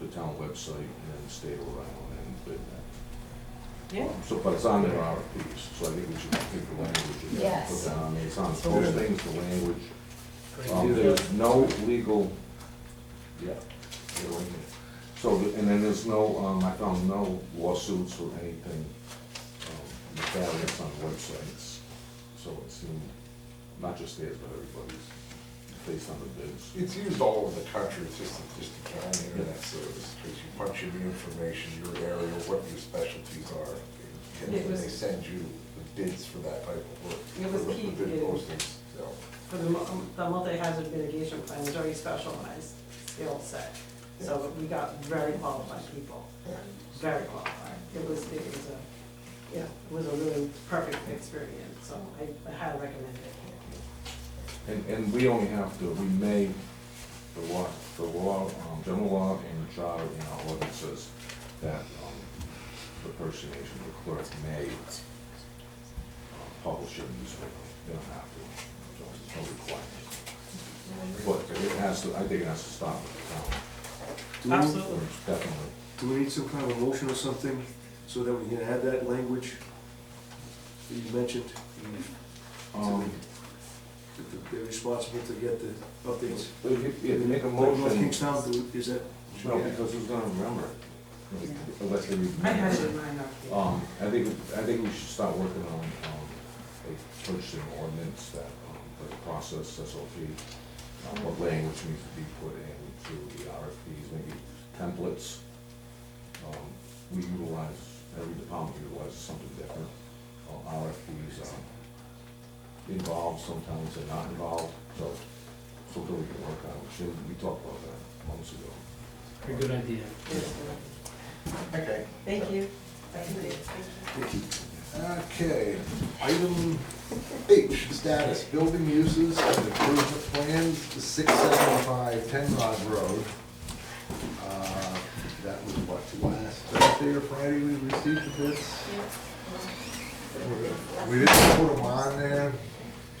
the town website and state of Rhode Island and bid that. Yeah. So, but it's on their RFPs, so I think we should pick the language and Yes. put down, it's on those things, the language. Um, Great. there's no legal, yeah, they're right there. so, and then there's no, um, I found no lawsuits or anything, um, nefarious on websites. So it seemed, not just theirs, but everybody's, based on the bids. It's used all over the country, it's just, just a county internet service, because you punch in your information, your area, what your specialties are. And It then was- they send you the bids for that type of work. It was for the- key The bid to- postings, so. For the, mu- the multi-hazard mitigation plan is very specialized skill set. So we got very qualified people, yeah. very qualified. It was, it was a, yeah, it was a really perfect experience, so I I highly recommend it. And, and we only have to, we may, the law, the law, um, general law and charter in our ordinance says that, um, the person, agent, the clerk may uh, publish it in newspaper. They don't have to, so it's no requirement. But it has to, I think it has to stop at Do the we- town, Absolutely. definitely. Do we need some kind of motion or something so that we can add that language that you mentioned? Um, That the- They're responsible to get the updates. if you- if you make a North motion, Kingstown, do- is that? no, because who's gonna remember it? Unless they remember. I had it in mind, okay. Um, I think, I think we should start working on, um, a purchasing ordinance that, um, the process, SOP, um, what language needs to be put into the RFPs, maybe templates. Um, we utilize, every department utilizes something different. Uh, RFPs are involved, sometimes they're not involved, so, so that we can work on, it. Should- we talked about that months ago. A good idea. Yes, Okay. Thank you. Thank you. Thank you. Okay, item H, status, building uses and improvement plans, six seventy-five Ten Rod Road. Uh, That was what, last Thursday or Friday we received the bids? We didn't put them on there,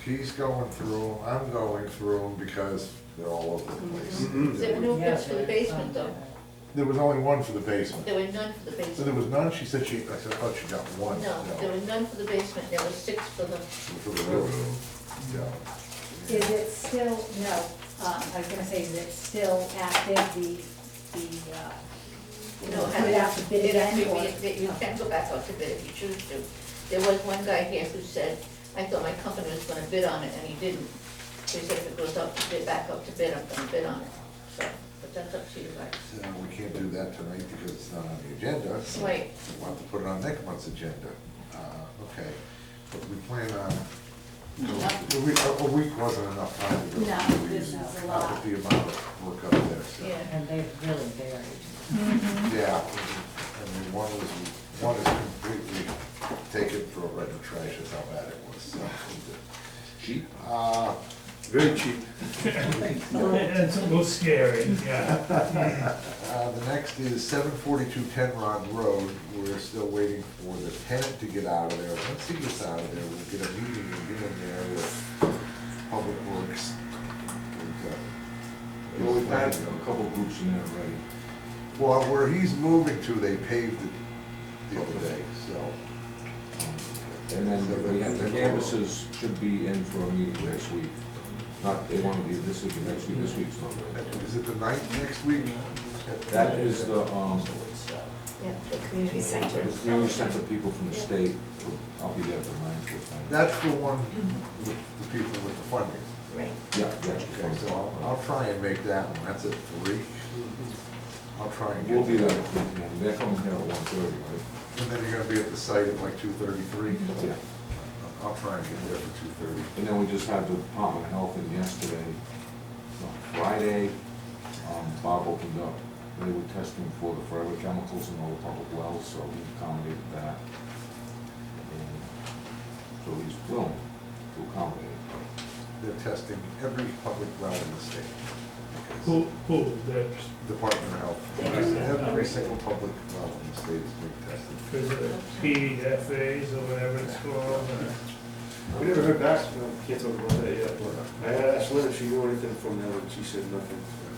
she's going through them, I'm going through them because they're all over the place. Mm-hmm. There were no bids for the basement though, There was only one for the basement, there were none for the so there basement. was none, she said she, I said, I thought she got one. No, there were none for the basement, there were six for the, For the railroad, yeah. Is it still, no, um, I was gonna say, is it still active, the, the, uh, you know, put it out to bid You again, or? can- You can go back out to bid if you choose to. There was one guy here who said, I thought my company was gonna bid on it, and he didn't. He said, if it goes up to bid, back up to bid, I'm gonna bid on it. So, but that's up to you guys. So we can't do that tonight because it's not on the agenda. so Right. We'll have to put it on next month's agenda. Uh, Okay, but we plan on, a week, a week wasn't enough time to go. No, through these. this is a Not lot. with the amount of work up there, so. Yeah. And they really varied. Yeah, I mean, one was, one is completely taken for a red trash is how bad it was, so. Cheap? Uh, Very cheap. It's a little scary, yeah. Uh, The next is seven forty-two Tenrod Road. We're still waiting for the tenant to get out of there. Once he gets out of there, we'll get a meeting and get in there with Public Works. with, uh, Well, we've had a couple groups in there already. Well, where he's moving to, they paved it the other day, so. And then we have the canvases should be in for a meeting next week. Not, they want to be this week, and next week, this week's not good. Is it the ninth next week? That is the, um, Yeah, the community center. it's the only sense of people from the state, I'll be there for mine. That's the one with the people with the funding. Right. Yeah, yeah. Okay, so I'll, I'll try and make that one. That's at three. I'll try and get. We'll be there, Yeah, they're coming here at one thirty, right? And then you're gonna be at the site at like two thirty-three? Yeah. I'll try and get there for two thirty. And then we just had the Department of Health in yesterday, no, Friday, um, Bob opened up. They were testing for the forever chemicals in all the public wells, so he accommodated that. And So he's willing to accommodate it. They're testing every public well in the state. Who, who, the, Department of Health. Every single public well in the state is being tested. because the PFAs or whatever it's called, uh, We never heard back, from them. can't talk about that yet. I asked Lynn if she knew anything from them, and she said nothing.